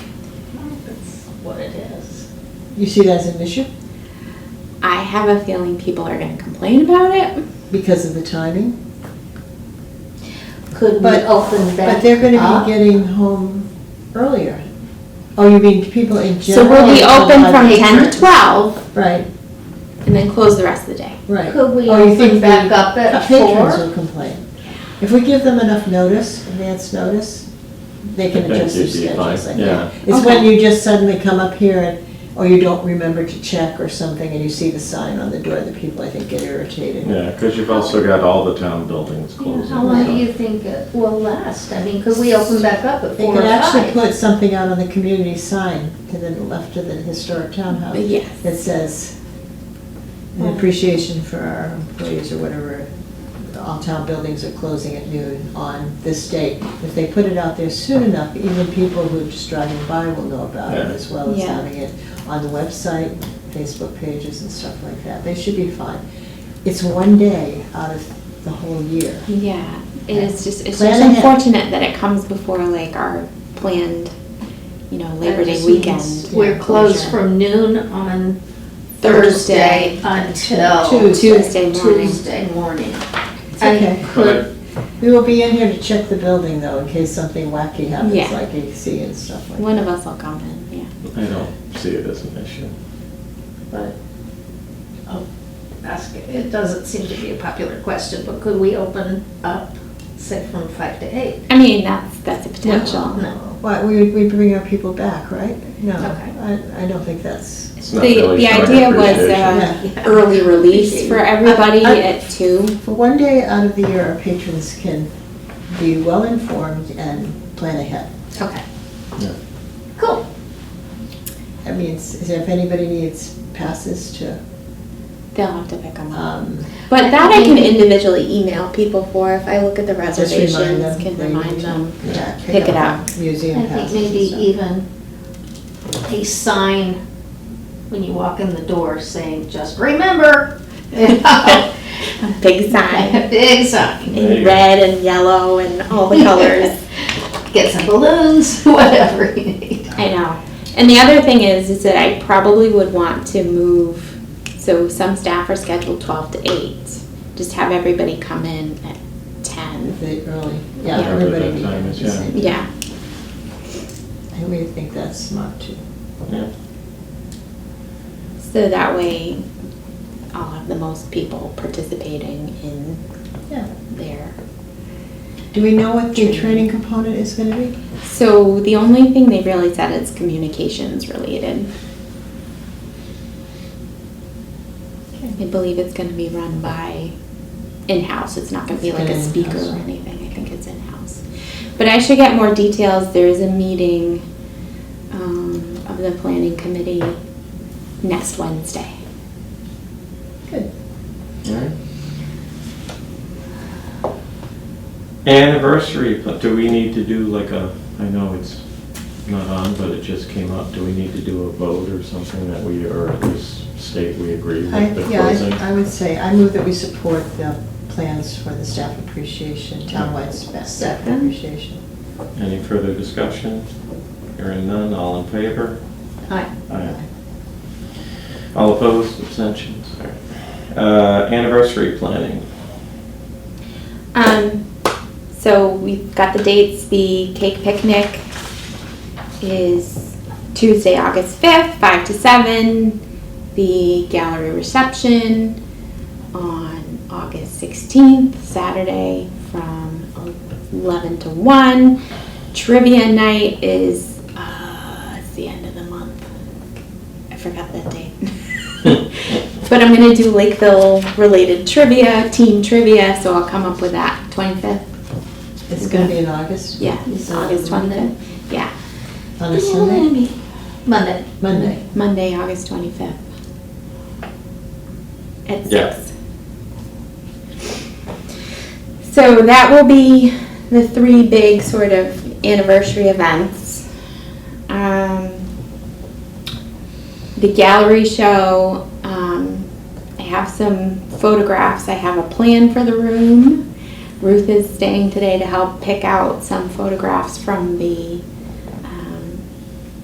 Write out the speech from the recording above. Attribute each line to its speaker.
Speaker 1: what it is.
Speaker 2: You see that as an issue
Speaker 3: I have a feeling people are going to complain about it.
Speaker 2: because of the timing?
Speaker 1: Could we
Speaker 2: But-
Speaker 1: open that
Speaker 2: But they're gonna
Speaker 1: up?
Speaker 2: be getting home earlier. Oh, you mean people in
Speaker 3: So
Speaker 2: general?
Speaker 3: we'll be
Speaker 2: are
Speaker 3: open
Speaker 2: allowed
Speaker 3: from
Speaker 2: to-
Speaker 3: 10 to 12
Speaker 2: Right,
Speaker 3: and then close the rest of the day.
Speaker 2: right.
Speaker 1: Could we
Speaker 2: Oh, you
Speaker 1: open
Speaker 2: think
Speaker 1: back
Speaker 2: the
Speaker 1: up at
Speaker 2: Patrons
Speaker 1: four?
Speaker 2: will complain. If we give them enough notice, advance notice, they can
Speaker 4: That's
Speaker 2: adjust their
Speaker 4: usually fine,
Speaker 2: schedules, I
Speaker 4: yeah.
Speaker 2: think. It's when you just suddenly come up here and, or you don't remember to check or something and you see the sign on the door that people, I think, get irritated.
Speaker 4: Yeah, because you've also got all the town buildings
Speaker 1: Yeah,
Speaker 4: closing.
Speaker 1: How long do
Speaker 4: so-
Speaker 1: you think it will last? I mean, could we open back up at
Speaker 2: They
Speaker 1: four or
Speaker 2: could actually
Speaker 1: five?
Speaker 2: put something out on the community sign to the left of the historic townhouse.
Speaker 3: But Hmm. yes.
Speaker 2: That says, "An appreciation for our employees or whatever, all town buildings are closing at noon on this date. If they put it out there soon enough, even people who are just driving by will know about it
Speaker 4: Yeah.
Speaker 2: as well as
Speaker 3: Yeah.
Speaker 2: having it on the website, Facebook pages and stuff like that. They should be fine. It's one day out of the whole year.
Speaker 3: Yeah, it is just, it's just
Speaker 2: Plan ahead.
Speaker 3: unfortunate that it comes before like our planned, you know, Labor
Speaker 1: That
Speaker 3: Day
Speaker 1: just means
Speaker 3: weekend.
Speaker 1: We're closed
Speaker 3: closure.
Speaker 1: from noon on
Speaker 3: Thursday.
Speaker 1: Thursday until.
Speaker 2: Tuesday.
Speaker 3: Tuesday morning.
Speaker 1: Tuesday morning.
Speaker 2: It's
Speaker 1: I
Speaker 2: okay.
Speaker 1: could-
Speaker 2: We will be in here to check the building though, in case something wacky
Speaker 3: Yeah.
Speaker 2: happens, like AC and stuff like
Speaker 3: One
Speaker 2: that.
Speaker 3: of us will come in, yeah.
Speaker 4: I don't see it as an issue.
Speaker 1: but, oh, ask, it doesn't seem to be a popular question, but could we open up, say, from five to eight?
Speaker 3: I mean, that's, that's a potential.
Speaker 1: No.
Speaker 2: Well, we, we bring our people back, right? No,
Speaker 1: Okay.
Speaker 2: I, I don't think that's,
Speaker 4: It's
Speaker 3: The,
Speaker 4: not really
Speaker 3: the
Speaker 4: showing
Speaker 3: idea was
Speaker 4: appreciation.
Speaker 3: uh,
Speaker 1: Yeah.
Speaker 3: early release for everybody
Speaker 2: I- I-
Speaker 3: at two.
Speaker 2: for one day out of the year, our patrons can be well-informed and plan ahead.
Speaker 1: Okay.
Speaker 4: Yeah.
Speaker 1: Cool.
Speaker 2: I mean, s- if anybody needs passes to,
Speaker 3: They'll have to pick them up.
Speaker 2: um,
Speaker 3: But
Speaker 1: I
Speaker 3: that I
Speaker 1: think-
Speaker 3: can individually email people for if I look at the
Speaker 2: just remind
Speaker 3: reservations,
Speaker 2: them.
Speaker 3: can
Speaker 2: they need
Speaker 3: remind
Speaker 2: to,
Speaker 3: them.
Speaker 2: yeah,
Speaker 3: Pick it
Speaker 2: Museum
Speaker 1: I
Speaker 2: passes.
Speaker 1: think maybe
Speaker 2: and stuff.
Speaker 1: even a sign when you walk in the door saying, just remember. you know?
Speaker 3: Big sign
Speaker 1: A Big sign.
Speaker 4: There you
Speaker 3: in
Speaker 4: go.
Speaker 3: red and yellow and all the colors.
Speaker 1: Get some balloons, whatever you need.
Speaker 3: I know. And the other thing is, is that I probably would want to move, so some staff are scheduled twelve to eight. Just have everybody come in at ten.
Speaker 2: They early, yeah,
Speaker 3: Yeah.
Speaker 2: everybody.
Speaker 4: Whatever that time is, yeah.
Speaker 3: Yeah,
Speaker 2: I really think that's smart too.
Speaker 4: Yeah.
Speaker 3: so that way I'll have the most people participating in
Speaker 2: Yeah.
Speaker 3: there.
Speaker 2: Do we know what the training component is gonna be?
Speaker 3: So the only thing they really said is communications related. I believe it's gonna be run by in-house, it's not gonna be like a
Speaker 2: It's
Speaker 3: speaker or
Speaker 2: in-house.
Speaker 3: anything, I think it's in-house. But I should get more details, there is a meeting, um, of the planning committee next Wednesday.
Speaker 2: Good.
Speaker 4: All right. Anniversary, pla- do we need to do like a, I know it's not on, but it just came up, do we need to do a vote or something that we, or at least state we agree
Speaker 2: I,
Speaker 4: with the
Speaker 2: yeah,
Speaker 4: closing?
Speaker 2: I- I would say, I move that we support the plans for the staff appreciation, townwide spa- staff
Speaker 3: Second.
Speaker 2: appreciation.
Speaker 4: Any further discussion? Hearing none, all in favor?
Speaker 1: Hi.
Speaker 4: Aye. All opposed, abstentions? All right. Uh, Anniversary planning.
Speaker 3: Um, so we've got the dates. The cake picnic is Tuesday, August 5th, 5 to 7. The gallery reception on August 16th, Saturday, from 11 to 1. Trivia night is, uh, it's the end of the month. I forgot that date. But I'm gonna do Lakeville related trivia, team trivia, so I'll come up with that twenty-fifth.
Speaker 2: It's gonna be in August,
Speaker 3: Yeah, it's August
Speaker 1: Monday?
Speaker 3: twenty-fifth. Yeah.
Speaker 2: on a Sunday,
Speaker 1: Monday.
Speaker 2: Monday.
Speaker 3: Monday, August twenty-fifth. At
Speaker 4: Yeah.
Speaker 3: six. So that will be the three big sort of anniversary events. Um, the gallery show, um, I have some photographs. I have a plan for the room. Ruth is staying today to help pick out some photographs from the um,